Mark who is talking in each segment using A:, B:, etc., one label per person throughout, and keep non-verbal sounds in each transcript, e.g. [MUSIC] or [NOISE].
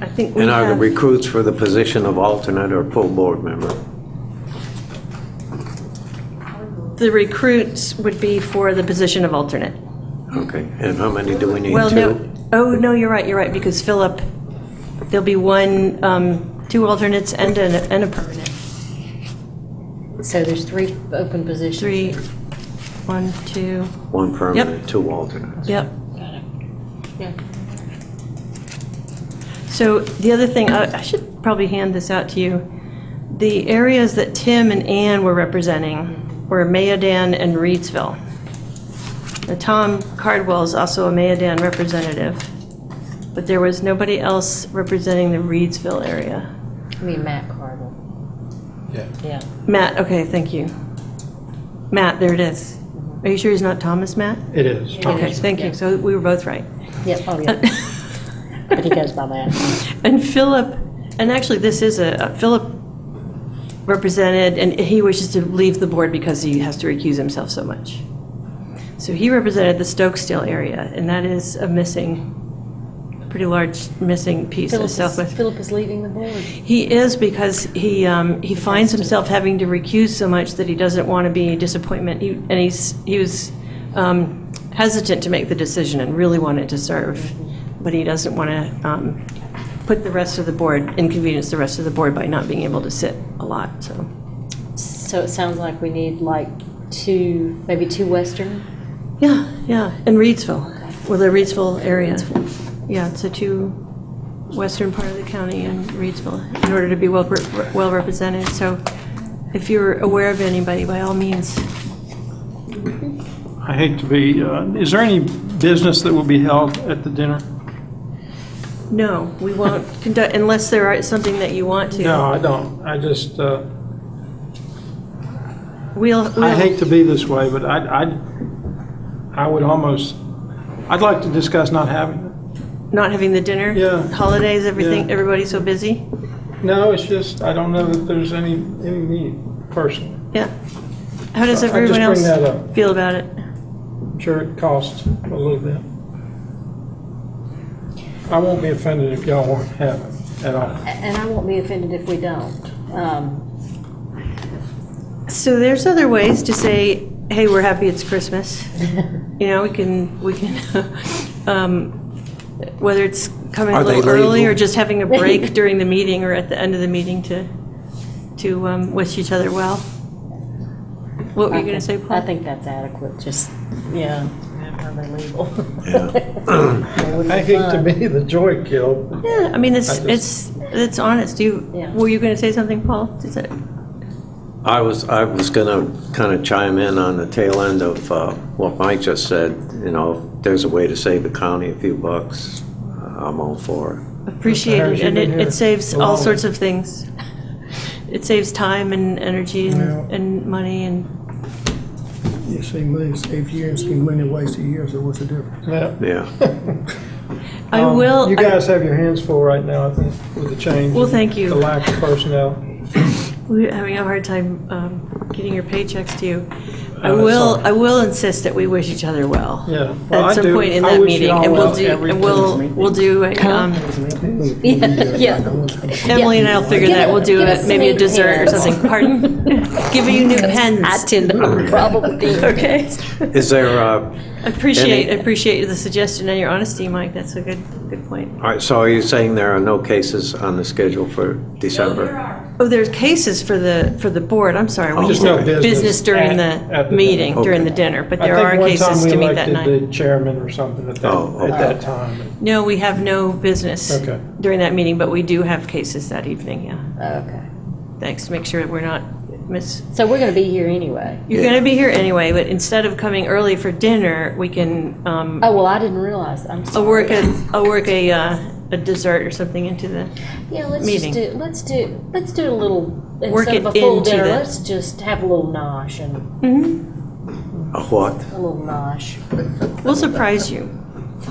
A: I think we
B: And are the
A: have,
B: recruits for the position of alternate or full board member?
A: Hmm. the recruits would be for the position of alternate.
B: Okay, and how many do we need?
A: Well, no,
B: Two?
A: oh, no, you're right, you're right, because Philip, there'll be one, um, two alternates and a, and a permanent.
C: So there's three open positions.
A: Three, one, two,
B: One permanent, two alternates.
A: yep.
C: Yeah.
A: So the other thing, I I should probably hand this out to you. The areas that Tim and Ann were representing were Mayodan and Reedsville. Now, Tom Cardwell is also a Mayodan representative, but there was nobody else representing the Reedsville area.
C: I mean, Matt Cardle.
D: Yeah.
C: Yeah.
A: Matt, okay, thank you. Matt, there it is. Are you sure he's not Thomas Matt?
D: It is.
A: Okay, thank you. So we were both right. [LAUGHS]
C: Yeah, oh, yeah. But he goes by
A: [LAUGHS]
C: that.
A: And Philip, and actually, this is a, Philip represented, and he wishes to leave the board because he has to recuse himself so much. So he represented the Stokesdale area, and that is a missing, pretty large missing piece of
C: Philip is-
A: Southwest.
C: Philip is leaving the board.
A: He is because he, um, he finds himself having to recuse so much that he doesn't want to be a disappointment. He- And he's, he was um, hesitant to make the decision and really wanted to serve, but he doesn't want to um, put the rest of the board, inconvenience the rest of the board by not being able to sit a lot, so.
C: So it sounds like we need like two, maybe two Western.
A: Yeah, yeah, and Reedsville, well, the Reedsville area. Yeah, it's a two, western part of the county and Reedsville, in order to be well, re- well represented. So if you're aware of anybody, by all means,
E: Um, I hate to be, uh, is there any business that will be held at the dinner?
A: no, we won't conduct, unless there is something that you want to.
E: No, I don't. I just, uh,
A: We'll,
E: I
A: we'll,
E: hate to be this way, but I, I, I would almost, I'd like to discuss not having
A: not having the dinner?
E: Yeah.
A: Holidays, everything,
E: Yeah.
A: everybody's so busy?
E: it. No, it's just, I don't know that there's any, any need personally.
A: Yeah. How does
E: So I
A: everyone
E: just bring
A: else
E: that up.
A: feel about it?
E: I'm sure it costs a little bit. I won't be offended if y'all won't have it at all.
C: A- And I won't be offended if we don't. Um,
A: So there's other ways to say, hey, we're happy it's Christmas.
C: [LAUGHS]
A: You know, we can, we can, [LAUGHS] um, whether it's coming a
B: Are they
A: little early
B: legal?
A: or just having
C: [LAUGHS]
A: a break during the meeting or at the end of the meeting to, to um, wish each other well. What were you
C: I
A: going to
C: think-
A: say,
C: I
A: Paul?
C: think that's adequate, just, yeah. Probably legal.
E: I hate to be the joy kill,
A: Yeah, I mean, it's,
E: I
A: it's, it's honest. Do you,
C: Yeah.
A: were you going to say something, Paul? Is it?
B: I was, I was gonna kind of chime in on the tail end of uh, what Mike just said, you know, if there's a way to save the county a few bucks, uh, I'm all for it.
A: Appreciated,
E: Harris,
A: and
E: you've
A: it,
E: been
A: it
E: here
A: saves
E: a
A: all
E: long
A: sorts of things. It saves time and energy and,
D: Yeah.
A: and money and,
D: You see money saved years, see money wasted years, so what's the difference?
E: Yeah.
A: [LAUGHS]
B: Yeah.
C: Oh,
A: I
E: Um,
A: will,
E: You
A: I-
E: guys have your hands full right now, I think, with the change.
A: Well, thank you.
E: The lack of personnel.
A: we're having a hard time, um, getting your paychecks to you. I
E: Uh,
A: will,
E: sorry.
A: I will insist that we wish each other well.
E: Yeah. Well, I
A: At some
E: do.
A: point in
E: I
A: that
E: wish you
A: meeting,
E: all
A: and we'll
E: well
A: do,
E: every
A: and we'll, we'll do, a, um,
C: [LAUGHS] Yeah.
A: Emily and I'll figure
C: Give
A: that,
C: it-
A: we'll do
C: give
A: a-
C: it
A: maybe a
C: sweet
A: dessert or
C: hands.
A: something,
C: [LAUGHS]
A: pardon? Give you new
C: I
A: pens,
C: tend to probably. [LAUGHS]
A: okay?
B: Is there, uh,
A: Appreciate,
B: Any-
A: appreciate the suggestion and your honesty, Mike, that's a good, good point.
B: all right, so are you saying there are no cases on the schedule for December?
A: Oh, there's cases for the, for the board, I'm sorry. we
B: Oh,
A: just
B: Just no
E: business
A: Business during
E: at- at
A: the
E: the-
A: meeting,
B: Okay.
A: during the dinner, but
E: I
A: there are
E: think one
A: cases
E: time we
A: to meet that night.
E: elected the chairman or something at
B: Oh,
E: that,
B: okay.
E: at that time.
A: No, we have no business
E: Okay.
A: during that meeting, but we do have cases that evening, yeah.
C: Okay.
A: Thanks, make sure we're not miss,
C: So we're going to be here anyway.
A: you're
B: Yeah.
A: going to be here anyway, but instead of coming early for dinner, we can, um,
C: Oh, well, I didn't realize. I'm
A: I'll
C: sorry.
A: work a,
C: [LAUGHS]
A: I'll work a, uh, a dessert or something into the,
C: Yeah, let's
A: meeting.
C: just do, let's do, let's do a little,
A: Work
C: instead of a
A: it
C: full
A: into
C: dinner,
A: the-
C: let's just have a little nosh and
B: A what?
C: a little nosh.
A: we'll surprise you.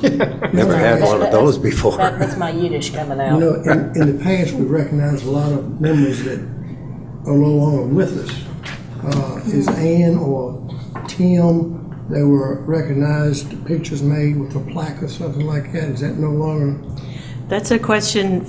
B: Never had one of those before.
C: That, that's my Yiddish coming out.
D: You know, in, in the past, we recognized a lot of members that are no longer with us. Uh, is Ann or Tim, they were recognized, pictures made with a plaque or something like that, is that no longer?
A: That's a question